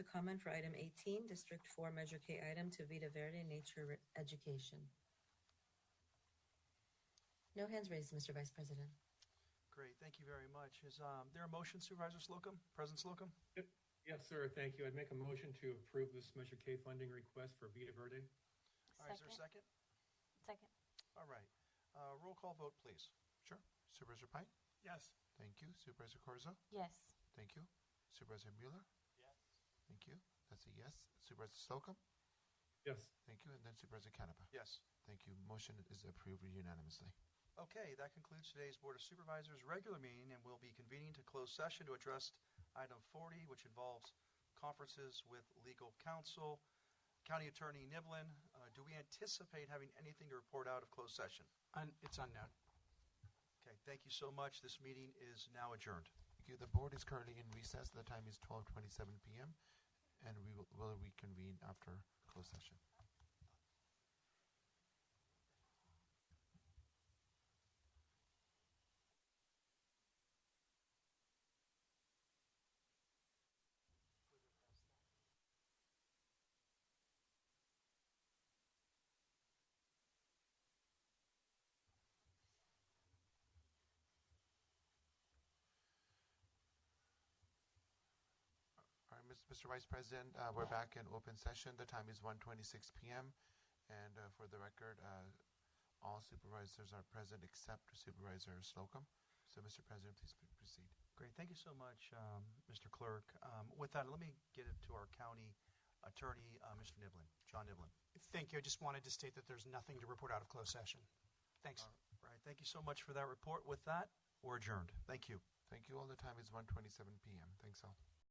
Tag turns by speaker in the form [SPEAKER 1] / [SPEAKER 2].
[SPEAKER 1] The comment for item 18, District 4, Measure K item to Vita Verde Nature Re- Education. No hands raised, Mr. Vice President.
[SPEAKER 2] Great, thank you very much. Is um, there a motion Supervisor Slocum, President Slocum?
[SPEAKER 3] Yes, sir, thank you. I'd make a motion to approve this Measure K funding request for Vita Verde.
[SPEAKER 2] All right, is there a second?
[SPEAKER 4] Second.
[SPEAKER 2] All right, Uh, roll call vote, please.
[SPEAKER 5] Sure. Supervisor Pine?
[SPEAKER 3] Yes.
[SPEAKER 5] Thank you. Supervisor Corzo?
[SPEAKER 4] Yes.
[SPEAKER 5] Thank you. Supervisor Mueller?
[SPEAKER 2] Yes.
[SPEAKER 5] Thank you. That's a yes. Supervisor Slocum?
[SPEAKER 3] Yes,
[SPEAKER 5] Thank you. And then Supervisor Canepa?
[SPEAKER 2] Yes.
[SPEAKER 5] Thank you. Motion is approved unanimously.
[SPEAKER 2] Okay, that concludes today's Board of Supervisors' regular meeting, and we'll be convening to close session to address item 40, which involves conferences with legal counsel. County Attorney Niblin, uh, do we anticipate having anything to report out of closed session?
[SPEAKER 6] Un- It's unknown.
[SPEAKER 2] Okay, thank you so much. This meeting is now adjourned.
[SPEAKER 5] Thank you. The board is currently in recess. The time is 12:27 p.m. and we will, will reconvene after closed session. All right, Ms- Mr. Vice President, uh, we're back in open session. The time is 1:26 p.m. And uh, for the record, uh, all supervisors are present except Supervisor Slocum. So, Mr. President, please p- proceed.
[SPEAKER 2] Great, thank you so much, um, Mr. Clerk. Um, With that, let me get it to our County Attorney, uh, Mr. Niblin, John Niblin.
[SPEAKER 6] Thank you. I just wanted to state that there's nothing to report out of closed session. Thanks.
[SPEAKER 2] All right, thank you so much for that report. With that, we're adjourned. Thank you.
[SPEAKER 5] Thank you all. The time is 1:27 p.m. Thanks all.